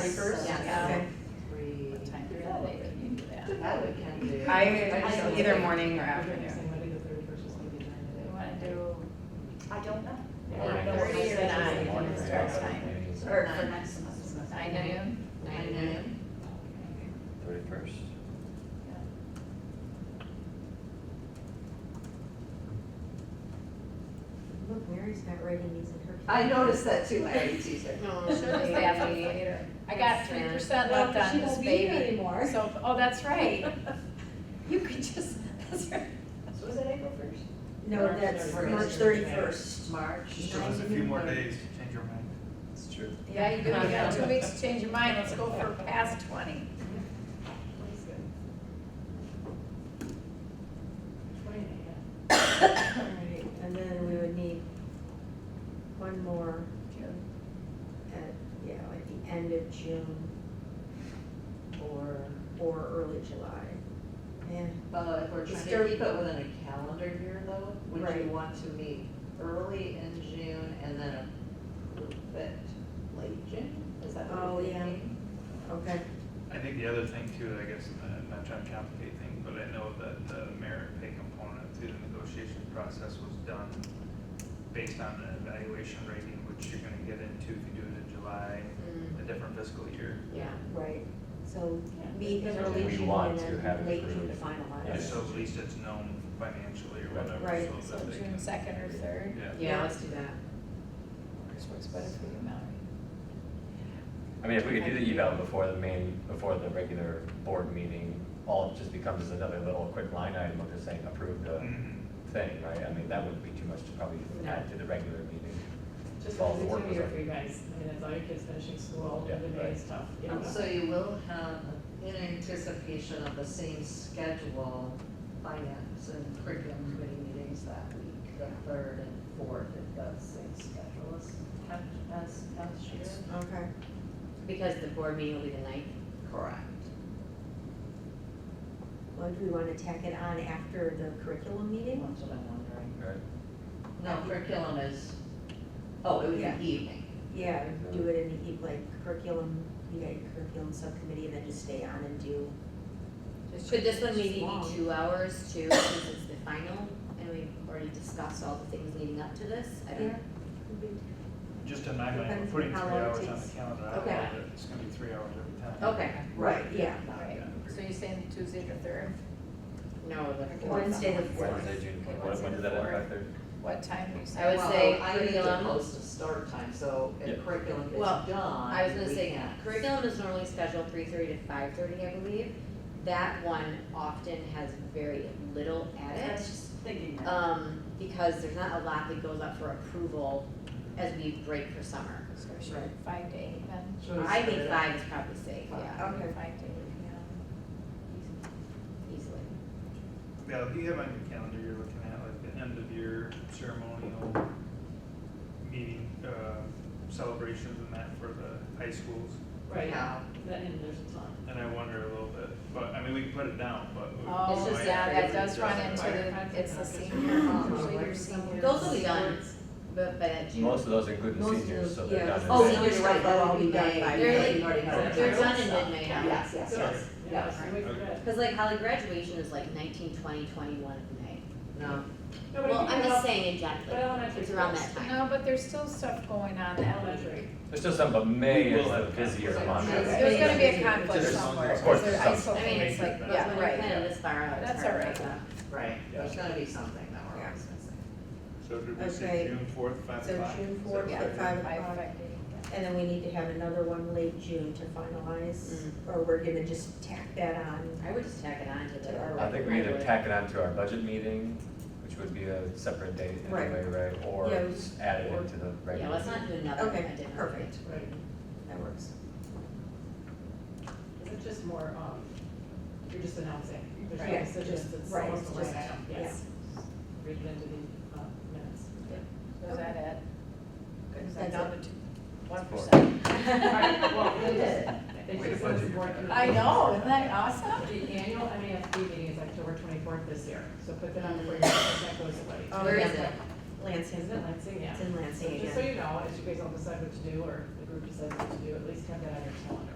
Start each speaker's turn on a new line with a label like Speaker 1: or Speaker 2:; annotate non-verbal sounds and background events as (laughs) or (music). Speaker 1: Thirty-first?
Speaker 2: Yeah.
Speaker 1: Three.
Speaker 2: What time is that? They can do that.
Speaker 1: That we can do.
Speaker 3: I, either morning or afternoon.
Speaker 2: Do you wanna do
Speaker 4: I don't know.
Speaker 2: eight thirty or nine? Starts time.
Speaker 4: Or
Speaker 2: Nine, nine noon?
Speaker 1: Nine a.m.
Speaker 5: Thirty-first?
Speaker 6: Look, Mary's not writing these in her.
Speaker 4: I noticed that too, Larry, Tuesday.
Speaker 1: No,
Speaker 2: Should be (laughs) later. I got three percent left
Speaker 6: Well,
Speaker 2: on
Speaker 6: she
Speaker 2: this
Speaker 6: won't be here
Speaker 2: baby.
Speaker 6: anymore.
Speaker 2: So, oh, that's right. You could just, that's right.
Speaker 4: So was it April first?
Speaker 6: No, that's March thirty-first.
Speaker 4: March.
Speaker 7: She still has a few more days to change her mind.
Speaker 5: It's true.
Speaker 2: Yeah, you do, you got two weeks to change your mind, let's go for past twenty.
Speaker 6: Alright, and then we would need one more at, yeah, at the end of June
Speaker 1: Or,
Speaker 6: or early July. Yeah,
Speaker 4: Well, Uh, if we're
Speaker 6: It's
Speaker 4: trying
Speaker 6: still-
Speaker 4: to keep it within a calendar year though, would
Speaker 6: Right.
Speaker 4: you want to meet early in June and then approve it late June? Is that what
Speaker 6: Oh,
Speaker 4: you're
Speaker 6: yeah.
Speaker 4: thinking?
Speaker 6: okay.
Speaker 7: I think the other thing too, I guess, and I'm not trying to complicate things, but I know that the merit pay component through the negotiation process was done based on an evaluation rating, which you're gonna get into if you do it in July, a different fiscal year.
Speaker 1: yeah.
Speaker 6: Right, so meet in
Speaker 5: Yeah.
Speaker 6: early
Speaker 5: We
Speaker 6: June
Speaker 5: want
Speaker 6: and
Speaker 5: to
Speaker 6: then
Speaker 5: have it
Speaker 6: late June to
Speaker 5: approved.
Speaker 6: finalize.
Speaker 7: Just so at least it's known financially or whatever.
Speaker 6: Right.
Speaker 7: so
Speaker 2: So
Speaker 7: that they
Speaker 2: June
Speaker 7: can-
Speaker 2: second or third,
Speaker 7: Yeah.
Speaker 1: Yeah, let's do that.
Speaker 2: which works better for you, Mallory.
Speaker 5: I mean, if we could do the eval before the main, before the regular board meeting, all it just becomes another little quick line item of just saying approve the
Speaker 7: Mhm.
Speaker 5: thing, right? I mean, that wouldn't be too much to probably
Speaker 8: No.
Speaker 5: add to the regular meeting.
Speaker 8: Just
Speaker 5: All
Speaker 8: because
Speaker 5: the
Speaker 8: it's
Speaker 5: work was
Speaker 8: easier
Speaker 5: done.
Speaker 8: for you guys, I mean, as all your kids finishing school,
Speaker 5: Yeah,
Speaker 8: every day is tough, you know.
Speaker 4: So you will have, in anticipation of the same schedule, finance and curriculum committee meetings that week, the third and fourth, if that's same schedule as, as, as year.
Speaker 6: Okay,
Speaker 1: Because the board meeting will be the ninth.
Speaker 4: Correct.
Speaker 6: well, do we wanna tack it on after the curriculum
Speaker 4: That's
Speaker 6: meeting?
Speaker 4: what I'm wondering.
Speaker 5: Right.
Speaker 4: No, curriculum is, oh, it would
Speaker 6: Yeah.
Speaker 4: be evening.
Speaker 6: Yeah, do it in the, eve- like curriculum, you got your curriculum subcommittee and then just stay on and do
Speaker 1: Could this one maybe
Speaker 6: Long.
Speaker 1: be two hours too, since it's the final, and we've already discussed all the things leading up to this? I don't,
Speaker 7: Just in my mind, we're
Speaker 6: Depends
Speaker 7: putting
Speaker 6: on how
Speaker 7: three
Speaker 6: long it
Speaker 7: hours on the
Speaker 6: takes.
Speaker 7: calendar, I don't
Speaker 1: Okay.
Speaker 7: know that it's gonna be three hours every time.
Speaker 1: okay,
Speaker 6: Right, yeah.
Speaker 2: Right, so you're saying Tuesday the third,
Speaker 1: no, the fourth.
Speaker 6: Wednesday the
Speaker 5: Wednesday, June,
Speaker 2: Okay,
Speaker 5: what, when does that
Speaker 2: Wednesday,
Speaker 5: affect there?
Speaker 2: what time are you saying?
Speaker 1: I would
Speaker 4: Well,
Speaker 1: say
Speaker 4: I need to
Speaker 1: curriculum.
Speaker 4: post a start time, so if
Speaker 5: Yeah.
Speaker 4: curriculum gets
Speaker 1: Well,
Speaker 4: done,
Speaker 1: I was gonna
Speaker 4: we
Speaker 1: say,
Speaker 4: can't.
Speaker 1: curriculum is normally scheduled three thirty to five thirty, I believe. That one often has very little at
Speaker 4: I was
Speaker 1: it,
Speaker 4: just thinking that.
Speaker 1: um, because there's not a lot that goes up for approval as we break for summer.
Speaker 2: So should we five to eight then?
Speaker 4: Should we
Speaker 1: I
Speaker 4: split
Speaker 1: think
Speaker 4: it up?
Speaker 1: five is probably safe, yeah,
Speaker 6: Okay.
Speaker 2: Five to eight,
Speaker 1: easily.
Speaker 7: Yeah, if you have on your calendar, you're looking at like the end of year ceremonial meeting, uh, celebrations and that for the high schools.
Speaker 8: Right,
Speaker 4: Yeah.
Speaker 8: that, and there's a ton.
Speaker 7: And I wonder a little bit, but, I mean, we can put it down, but. we-
Speaker 2: yeah.
Speaker 1: It's
Speaker 2: Oh,
Speaker 1: just,
Speaker 7: might
Speaker 1: yeah, that
Speaker 7: have to
Speaker 2: does run into
Speaker 7: adjust it.
Speaker 2: the, it's the senior, um, usually your senior.
Speaker 1: Those will be done, but by that June.
Speaker 5: Most of those include
Speaker 6: Most
Speaker 5: the
Speaker 6: of
Speaker 5: seniors,
Speaker 6: those-
Speaker 5: so they're
Speaker 6: yeah.
Speaker 5: done in
Speaker 4: Oh,
Speaker 5: May.
Speaker 6: so
Speaker 4: you're right, that'll be done by,
Speaker 1: They're
Speaker 4: May.
Speaker 1: like-
Speaker 4: you already have.
Speaker 1: They're
Speaker 4: it.
Speaker 1: done in mid-May, huh?
Speaker 4: Yes, yes, yes.
Speaker 8: Yeah,
Speaker 4: Yes.
Speaker 8: so we could.
Speaker 1: Cause like Holly graduation is like nineteen, twenty, twenty-one in May.
Speaker 4: No,
Speaker 8: No, but if
Speaker 1: Well,
Speaker 8: you
Speaker 1: I'm
Speaker 8: go
Speaker 1: just
Speaker 8: up-
Speaker 1: saying in general,
Speaker 8: but elementary
Speaker 1: it's around
Speaker 8: schools.
Speaker 1: that time.
Speaker 2: No, but there's still stuff going on that elementary.
Speaker 8: Elementary.
Speaker 5: There's still some, but May
Speaker 7: We
Speaker 5: is
Speaker 7: will
Speaker 5: the
Speaker 7: have
Speaker 5: busier
Speaker 7: conflicts.
Speaker 5: month.
Speaker 4: There's
Speaker 2: There's gonna be a
Speaker 1: Yeah.
Speaker 2: conflict
Speaker 7: Just-
Speaker 2: somewhere,
Speaker 5: of course,
Speaker 2: because they're
Speaker 5: some-
Speaker 2: isolating, it's like,
Speaker 7: I mean,
Speaker 2: yeah,
Speaker 1: When you're
Speaker 2: right.
Speaker 1: planning this far out, it's
Speaker 2: That's
Speaker 1: hard
Speaker 2: all
Speaker 1: to
Speaker 2: right.
Speaker 1: know.
Speaker 4: right,
Speaker 5: Yeah.
Speaker 4: there's gonna be something that we're
Speaker 6: Yeah.
Speaker 4: always missing.
Speaker 7: So did we
Speaker 6: Okay.
Speaker 7: say June fourth, five
Speaker 6: So
Speaker 7: o'clock?
Speaker 6: June
Speaker 7: Is that
Speaker 6: fourth
Speaker 7: what
Speaker 2: Yeah.
Speaker 6: at
Speaker 7: we
Speaker 6: five
Speaker 7: did?
Speaker 2: Five,
Speaker 6: o'clock,
Speaker 2: five days.
Speaker 6: and then we need to have another one late June to finalize,
Speaker 1: Mm.
Speaker 6: or we're gonna just tack that on.
Speaker 1: I would just tack it on to the.
Speaker 6: To our-
Speaker 5: I think we either tack it on to our budget meeting, which would be a separate date
Speaker 6: Right.
Speaker 5: anyway, right? Or
Speaker 6: Yeah, we-
Speaker 5: just add it into the
Speaker 1: Yeah,
Speaker 5: regular.
Speaker 1: let's not do another, one,
Speaker 6: Okay,
Speaker 1: a different.
Speaker 6: perfect,
Speaker 8: Right,
Speaker 6: that works.
Speaker 8: it's just more, um, you're just announcing, there's no
Speaker 6: Right.
Speaker 8: decisions, it's
Speaker 6: Right,
Speaker 8: almost a
Speaker 6: just-
Speaker 8: line item, yes. Read it into the, uh, minutes.
Speaker 2: So Is that it? Good,
Speaker 6: That's it. (laughs)
Speaker 2: One
Speaker 5: Four.
Speaker 2: percent.
Speaker 8: All right, well, we did. They
Speaker 7: Way to
Speaker 8: just
Speaker 7: budget
Speaker 8: said
Speaker 7: your
Speaker 8: board
Speaker 7: time.
Speaker 2: I know, isn't that awesome?
Speaker 8: The annual MASC meeting is October twenty-fourth this year, so put that on for
Speaker 4: Mm.
Speaker 8: your, that goes away.
Speaker 6: Oh,
Speaker 1: Where
Speaker 6: yeah.
Speaker 1: is it?
Speaker 6: Lansing,
Speaker 8: Isn't it Lansing? Yeah.
Speaker 6: it's in
Speaker 8: So
Speaker 6: Lansing
Speaker 8: just so
Speaker 6: again.
Speaker 8: you know, as you guys all decide what to do or if you group decides what to do, at least have that on your calendar.